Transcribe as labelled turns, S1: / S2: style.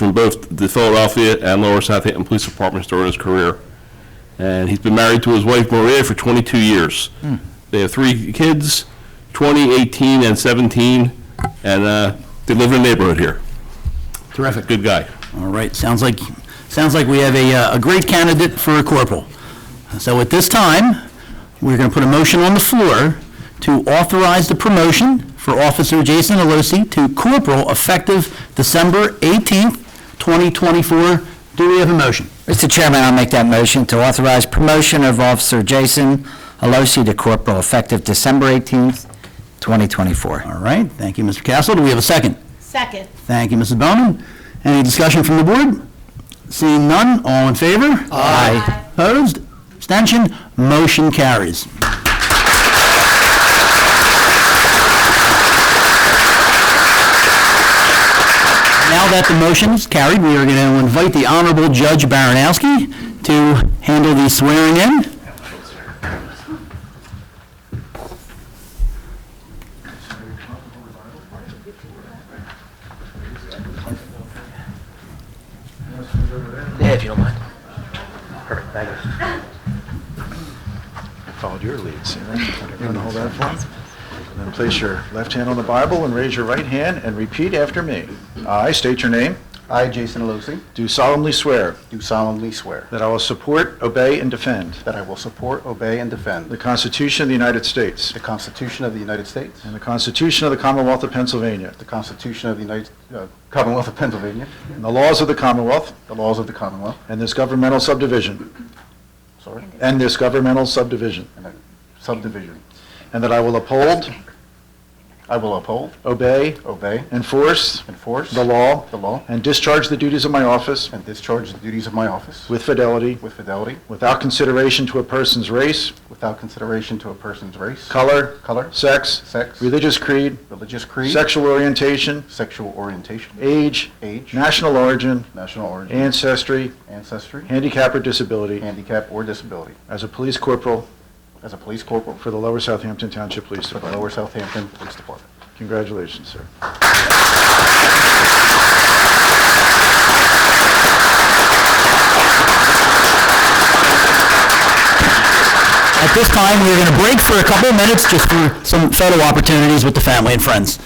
S1: from both the Philadelphia and Lower Southampton Police Departments during his career. And he's been married to his wife Maria for 22 years. They have three kids, 20, 18, and 17, and uh, they live in the neighborhood here.
S2: Terrific.
S1: Good guy.
S2: All right, sounds like, sounds like we have a, uh, a great candidate for a corporal. So at this time, we're going to put a motion on the floor to authorize the promotion for Officer Jason Alosi to corporal effective December 18th, 2024. Do we have a motion?
S3: Mr. Chairman, I'll make that motion to authorize promotion of Officer Jason Alosi to corporal effective December 18th, 2024.
S2: All right, thank you, Mr. Castle. Do we have a second?
S4: Second.
S2: Thank you, Mrs. Bowman. Any discussion from the board? Seeing none, all in favor?
S3: Aye.
S2: Opposed? Abstention? Motion carries. Now that the motion is carried, we are going to invite the Honorable Judge Baranowski to handle the swearing in.
S5: Yeah, if you don't mind. Perfect, thank you. I Followed your lead, Sarah. You're going to hold that for me? And then place your left hand on the Bible and raise your right hand and repeat after me. I state your name,
S6: I, Jason Alosi,
S5: do solemnly swear
S6: do solemnly swear
S5: that I will support, obey, and defend
S6: that I will support, obey, and
S5: the
S6: defend
S5: Constitution of the United States
S6: the Constitution of the United States,
S5: and the Constitution of the Commonwealth of Pennsylvania
S6: the Constitution of the United, uh, Commonwealth of Pennsylvania,
S5: and the laws of the Commonwealth
S6: the laws of the Commonwealth,
S5: and this governmental subdivision,
S6: sorry,
S5: and this governmental subdivision,
S6: subdivision.
S5: and that I will uphold,
S6: I will uphold,
S5: obey,
S6: obey,
S5: enforce
S6: enforce
S5: the law
S6: the law,
S5: and discharge the duties of my office
S6: and discharge the duties of my office
S5: With fidelity,
S6: with fidelity,
S5: without consideration to a person's race,
S6: without consideration to a person's race,
S5: color,
S6: color,
S5: sex,
S6: sex,
S5: religious creed,
S6: religious creed,
S5: sexual orientation,
S6: sexual orientation,
S5: age,
S6: age,
S5: national origin,
S6: national origin,
S5: ancestry,
S6: ancestry,
S5: handicap or disability,
S6: handicap, or disability.
S5: as a police corporal
S6: As a police corporal
S5: for the Lower Southampton Township Police
S6: for the Lower
S5: Department.
S6: Southampton Police Department.
S5: Congratulations, sir.
S2: At this time, we're going to break for a couple of minutes just for some photo opportunities with the family and friends.